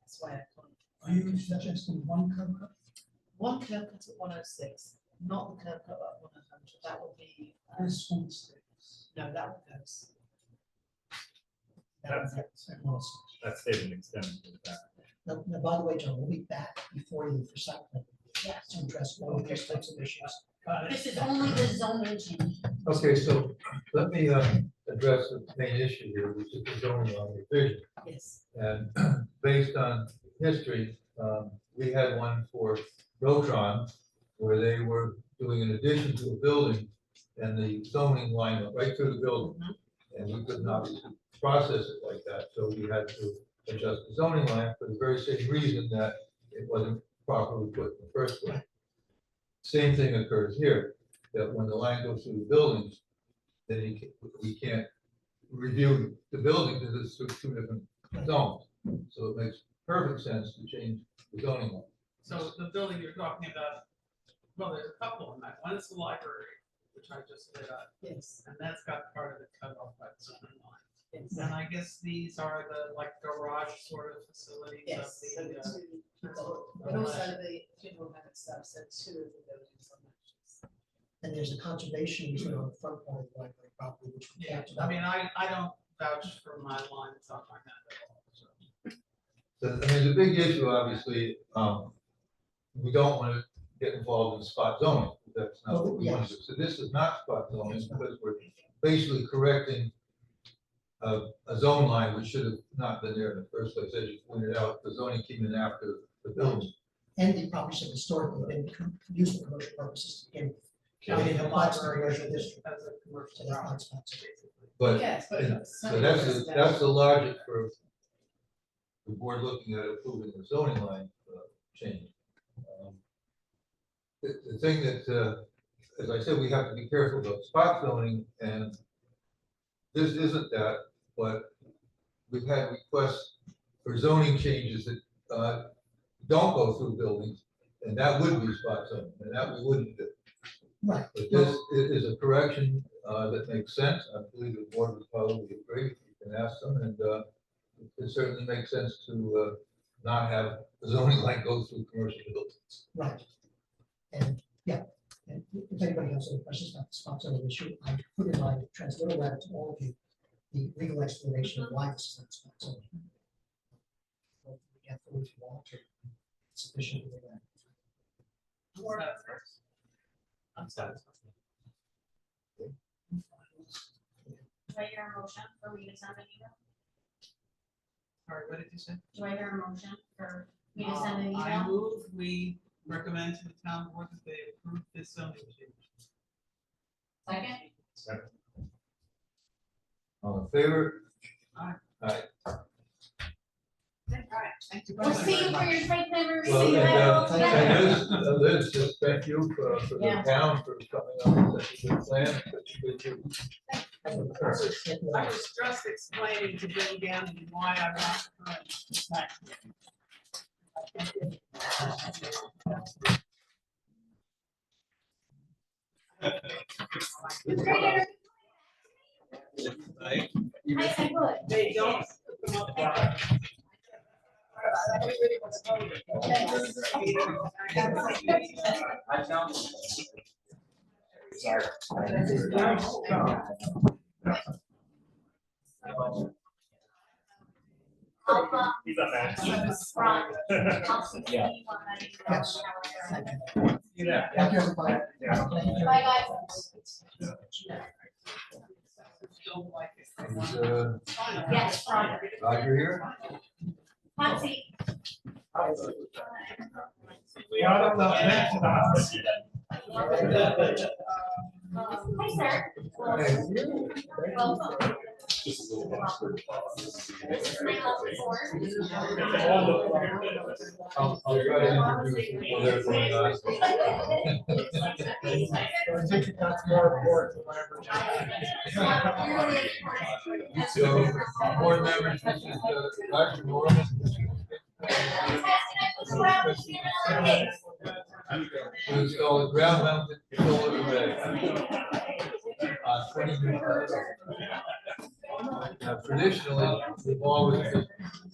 that's why I can't. Are you suggesting one curb cut? One curb cut at one oh six, not the curb cut at one hundred, that would be, uh, This one stays. no, that one goes. That's it. It was. That's saving extends to the back. Now, now, by the way, John, we'll be back before you for something Yeah. to address all of these types of issues. Got it. This is only the zoning change. Okay, so let me uh, address the main issue here, which is the zoning law revision. Yes, And based on history, um, we had one for Rotron, where they were doing an addition to a building, and the zoning line went right through the building. And we could not process it like that, so we had to adjust the zoning line for the very same reason that it wasn't properly put in the first place. Same thing occurs here, that when the line goes through the buildings, then you can, we can't review the building, because it's through two different zones. So it makes perfect sense to change the zoning law. So the building you're talking about, well, there's a couple on that. One is the library, which I just lit up, yes, and that's got part of it cut off by the zoning line. yes, And I guess these are the like garage sort of facilities of yes. so the. uh, it's really- transport- And also the funeral home itself, so two of the buildings on that. And there's a conservation easement on the front part of the library property, which we Yeah, talked about. I mean, I, I don't vouch for my lines on my map at all, so. So, I mean, the big issue, obviously, um, we don't want to get involved in spot zoning, that's not what we want to do. So this is not spot zoning, because we're basically correcting a, a zone line which should have not been there in the first place, as you pointed out, the zoning came in after the building. And the property should historically been com- used for commercial purposes to begin with. County Yeah, the lots of library commercial district. As a commercial So that's property, not sponsored. basically. But Yes, but. yeah, some So that's, the- residential- that's the logic for the board looking at approving the zoning line uh, change. Um, The, the thing that, uh, as I said, we have to be careful about spot zoning, and this isn't that, but we've had requests for zoning changes that uh, don't go through buildings, and that would be spot zoning, and that we wouldn't do. Right. But this i- is a correction uh, that makes sense. I believe the board would probably agree. You can ask them, and uh, it certainly makes sense to uh, not have the zoning line go through commercial buildings. Right. And, yeah, and if anybody has any questions about the sponsor of the issue, I put in my transmittal letter to all of you, the legal explanation of why this is not sponsored. Hopefully, we get through if you want to, sufficiently. uh, Or not first. I'm sorry. Do I hear a motion for me to send an email? Sorry, what did you say? Do I hear a motion for me to send an Um, I email? move we recommend to the town board that they approve this zoning change. Second? All in favor? Aye. All right. Thank you. We'll see you for your site plan review. Well, You and, have it all uh, together. and Liz, uh, Liz, just thank you for, for the Yeah. town for coming up with such a good plan. such a good- I don't know, Sure. it's- it's- I was just explaining to Bill Gannon why I'm not current. this back here. I think It's right here. I, I would. They don't. come up with- Everybody wants to vote. I found. I'll, uh, He's up there. Right. I'll see you Yeah. on that email. Yes. Yeah. Thank you, everybody. Yeah. Thank you. Bye, guys. Feel like it's the And, one. uh, Yes, Roger. Roger here? Patsy. We are the next to the house. Hi, sir. Hey. Welcome. Just a little awkward. This is my last four. I'll, I'll try to introduce you. Well, there's one guy. Well, Take your thoughts more forward. So, board members, this is, uh, Dr. Norman. to install a ground mounted solar array. Uh, twenty years. Now, Traditionally, we've always